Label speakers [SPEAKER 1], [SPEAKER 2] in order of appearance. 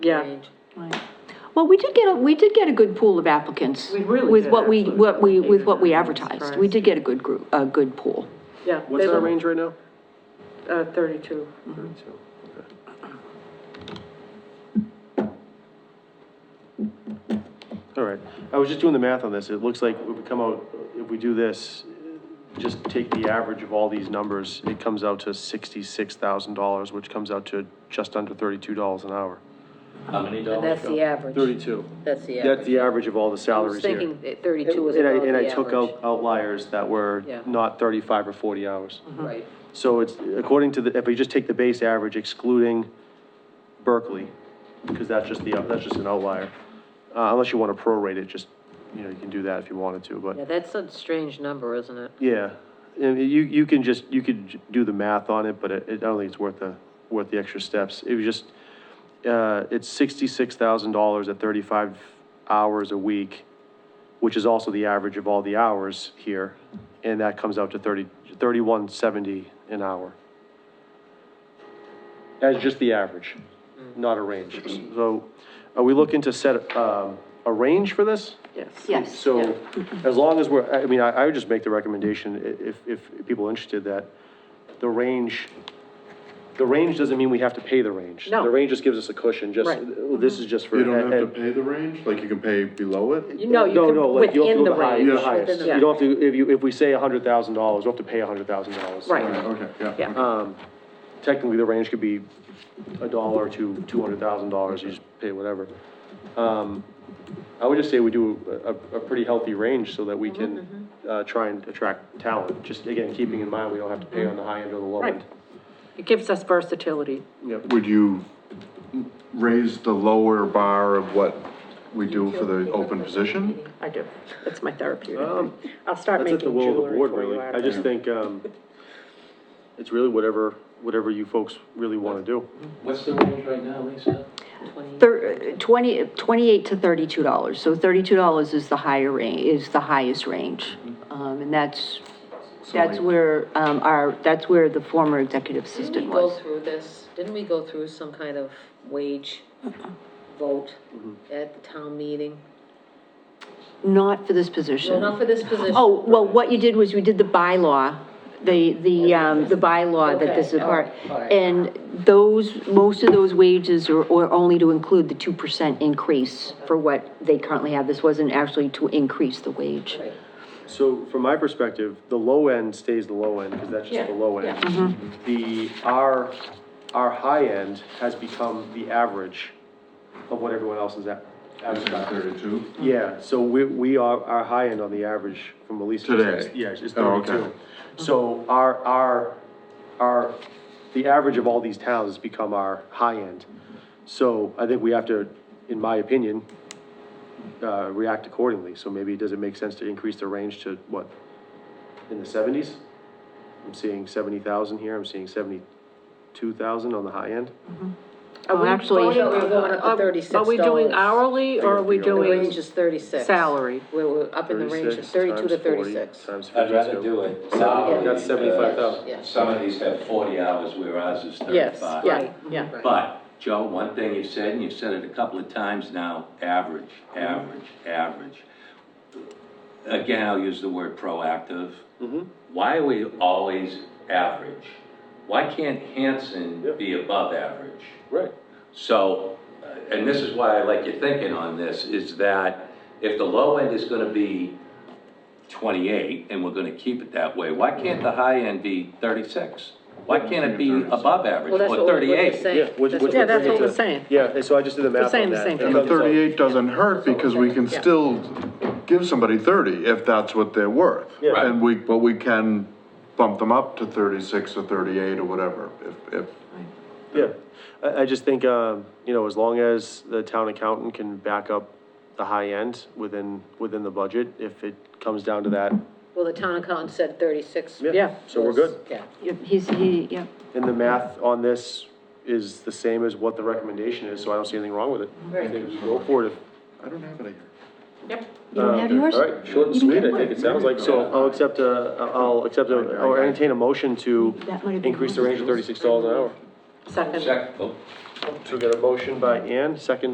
[SPEAKER 1] Yeah.
[SPEAKER 2] Right. Well, we did get, a we did get a good pool of applicants.
[SPEAKER 1] We really
[SPEAKER 2] With
[SPEAKER 1] did,
[SPEAKER 2] what we,
[SPEAKER 1] actually.
[SPEAKER 2] what we, with what we
[SPEAKER 1] I'm
[SPEAKER 2] advertised. We
[SPEAKER 1] surprised.
[SPEAKER 2] did get a good group, a good pool.
[SPEAKER 1] Yeah.
[SPEAKER 3] What's our range right now?
[SPEAKER 1] Uh, thirty-two.
[SPEAKER 4] Mm-hmm.
[SPEAKER 3] Thirty-two. Okay. All right, I was just doing the math on this, it looks like if we come out, if we do this, just take the average of all these numbers, it comes out to sixty-six thousand dollars, which comes out to just under thirty-two dollars an hour.
[SPEAKER 5] How many
[SPEAKER 4] And
[SPEAKER 5] dollars?
[SPEAKER 4] that's the average.
[SPEAKER 3] Thirty-two.
[SPEAKER 4] That's the
[SPEAKER 3] That's
[SPEAKER 4] average.
[SPEAKER 3] the average of all the
[SPEAKER 4] I was
[SPEAKER 3] salaries here.
[SPEAKER 4] thinking that 32 was
[SPEAKER 3] And I-
[SPEAKER 4] about the average.
[SPEAKER 3] And I took out outliers that were
[SPEAKER 4] Yeah.
[SPEAKER 3] not thirty-five or forty hours.
[SPEAKER 4] Right.
[SPEAKER 3] So it's, according to the, if we just take the base average excluding Berkeley, because that's just the, that's just an outlier. Uh, unless you want to prorate it, just, you know, you can do that if you wanted to,
[SPEAKER 4] Yeah,
[SPEAKER 3] but,
[SPEAKER 4] that's a strange number, isn't it?
[SPEAKER 3] yeah. And you, you can just, you could j- do the math on it, but it, I don't think it's worth the, worth the extra steps. It was just, uh, it's sixty-six thousand dollars at thirty-five hours a week, which is also the average of all the hours here, and that comes out to thirty, thirty-one seventy an hour. That's just the average, not a range. So are we looking to set, um, a range for this?
[SPEAKER 1] Yes.
[SPEAKER 2] Yes.
[SPEAKER 3] So as long as we're, I mean, I, I would just make the recommendation, i- if, if people are interested, that the range, the range doesn't mean we have to pay the range.
[SPEAKER 1] No.
[SPEAKER 3] The range just gives us a cushion, just,
[SPEAKER 1] Right.
[SPEAKER 3] this is just for.
[SPEAKER 6] You don't have to pay the range, like you can pay below it?
[SPEAKER 1] You know, you can,
[SPEAKER 3] No, no, like you have to
[SPEAKER 1] within
[SPEAKER 3] go
[SPEAKER 1] the
[SPEAKER 3] the highest,
[SPEAKER 1] range.
[SPEAKER 3] the
[SPEAKER 6] Yeah.
[SPEAKER 3] highest.
[SPEAKER 1] Within the-
[SPEAKER 3] You don't have to, if you, if we say a hundred thousand dollars, we'll have to pay a hundred thousand dollars.
[SPEAKER 1] Right,
[SPEAKER 6] Okay, yeah. Uh-huh.
[SPEAKER 1] Yeah.
[SPEAKER 6] okay.
[SPEAKER 3] Technically, the range could be a dollar to two hundred thousand dollars, you just pay whatever. Um, I would just say we do a, a pretty healthy range so that we
[SPEAKER 1] Mm-hmm,
[SPEAKER 3] can, uh, try and attract talent. Just again, keeping in mind, we don't have to pay on the high end or the low
[SPEAKER 1] Right.
[SPEAKER 3] end.
[SPEAKER 1] it gives us versatility.
[SPEAKER 3] Yep.
[SPEAKER 6] Would you raise the lower bar of what we do for the open position?
[SPEAKER 1] I do. That's my therapy.
[SPEAKER 3] Um,
[SPEAKER 1] I'll start
[SPEAKER 3] That's at the
[SPEAKER 1] making
[SPEAKER 3] will of the
[SPEAKER 1] jewelry
[SPEAKER 3] board,
[SPEAKER 1] for
[SPEAKER 3] really.
[SPEAKER 1] you out
[SPEAKER 3] I
[SPEAKER 1] of
[SPEAKER 3] just
[SPEAKER 1] it.
[SPEAKER 3] think, um, it's really whatever, whatever you folks really wanna do.
[SPEAKER 5] What's the range right now, Lisa?
[SPEAKER 2] Thir- 20, 28 to 32 dollars. So 32 dollars is the higher range, is the highest range. Um, and that's, that's where, um, our, that's where the former executive
[SPEAKER 4] Didn't
[SPEAKER 2] assistant
[SPEAKER 4] we go
[SPEAKER 2] was.
[SPEAKER 4] through this, didn't we go through some kind of wage vote
[SPEAKER 3] Mm-hmm.
[SPEAKER 4] at the town meeting?
[SPEAKER 2] Not for this position.
[SPEAKER 4] No, not for this position.
[SPEAKER 2] Oh, well, what you did was you did the bylaw, the, the, um, the bylaw that this is
[SPEAKER 4] Okay, all
[SPEAKER 2] part.
[SPEAKER 4] right, all right.
[SPEAKER 2] And those, most of those wages are, are only to include the two percent increase for what they currently have. This wasn't actually to increase the wage.
[SPEAKER 4] Right.
[SPEAKER 3] So from my perspective, the low end stays the low end, because that's just the low end. The, our, our high end has become the average of what everyone else is at.
[SPEAKER 6] Is it thirty-two?
[SPEAKER 3] Yeah, so we, we are, our high end on the average from Elise.
[SPEAKER 6] Today?
[SPEAKER 3] Yes, it's
[SPEAKER 6] Oh, okay.
[SPEAKER 3] thirty-two. So our, our, our, the average of all these towns has become our high end. So I think we have to, in my opinion, uh, react accordingly. So maybe does it make sense to increase the range to what? In the seventies? I'm seeing seventy thousand here, I'm seeing seventy-two thousand on the high end.
[SPEAKER 1] Are we
[SPEAKER 2] Well, actually-
[SPEAKER 1] voting-
[SPEAKER 4] Yeah, we're going up to
[SPEAKER 1] are- Are we Oh, doing
[SPEAKER 4] $36.
[SPEAKER 1] hourly or are we
[SPEAKER 3] The
[SPEAKER 4] The
[SPEAKER 1] doing?
[SPEAKER 4] range is 36.
[SPEAKER 1] Salary.
[SPEAKER 4] We're, we're up in the range of
[SPEAKER 3] 36
[SPEAKER 4] 32 to
[SPEAKER 3] times 40
[SPEAKER 4] 36.
[SPEAKER 3] Times fifty-two.
[SPEAKER 5] I'd rather do it.
[SPEAKER 3] Seventy- that's
[SPEAKER 5] Uh,
[SPEAKER 3] 75,000.
[SPEAKER 4] Yeah.
[SPEAKER 5] Some of these have forty hours, where ours is
[SPEAKER 4] Yes,
[SPEAKER 5] thirty-five.
[SPEAKER 4] right, Mm-hmm. yeah.
[SPEAKER 5] But, Joe, one thing you've said, and you've said it a couple of times now, average, average, average. Again, I'll use the word proactive. Why are we always average? Why can't Hanson be above average?
[SPEAKER 3] Right.
[SPEAKER 5] So, uh, and this is why I like your thinking on this, is that if the low end is gonna be twenty-eight, and we're gonna keep it that way, why can't the high end be thirty-six? Why can't it be above average,
[SPEAKER 4] Well, that's
[SPEAKER 5] or
[SPEAKER 4] what we're- we're
[SPEAKER 5] thirty-eight?
[SPEAKER 3] Yeah,
[SPEAKER 4] saying.
[SPEAKER 3] which,
[SPEAKER 4] That's what
[SPEAKER 3] which.
[SPEAKER 1] Yeah,
[SPEAKER 3] would
[SPEAKER 4] we're
[SPEAKER 1] that's
[SPEAKER 3] bring it
[SPEAKER 1] what
[SPEAKER 3] to-
[SPEAKER 1] we're saying.
[SPEAKER 3] Yeah, and so I just did the math
[SPEAKER 1] saying
[SPEAKER 3] on
[SPEAKER 1] the
[SPEAKER 3] that.
[SPEAKER 1] same
[SPEAKER 3] It
[SPEAKER 6] And the
[SPEAKER 3] comes out-
[SPEAKER 6] thirty-eight doesn't hurt because we can still give somebody thirty if that's what they're worth.
[SPEAKER 3] Yeah.
[SPEAKER 5] Right.
[SPEAKER 6] And we, but we can bump them up to thirty-six or thirty-eight or whatever, if, if
[SPEAKER 3] Yeah, I, I just think, um, you know, as long as the town accountant can back up the high end within, within the budget, if it comes down to that,
[SPEAKER 4] Well, the town accountant said 36.
[SPEAKER 1] Yeah.
[SPEAKER 3] so we're
[SPEAKER 4] was-
[SPEAKER 3] good.
[SPEAKER 4] Yeah.
[SPEAKER 2] Yep, He's, he, yeah.
[SPEAKER 3] And the math on this is the same as what the recommendation is, so I don't see anything wrong with it. I think we go for it.
[SPEAKER 6] I don't have any.
[SPEAKER 2] You don't have yours?
[SPEAKER 3] Uh, All right, short and sweet, I think it sounds like, so I'll accept a, I'll accept a, or entertain a motion to
[SPEAKER 2] That might have been
[SPEAKER 3] increase the range to
[SPEAKER 2] mine.
[SPEAKER 3] thirty-six dollars an hour.
[SPEAKER 1] Second.
[SPEAKER 5] Second, oh.
[SPEAKER 3] So we got a motion by Ann, second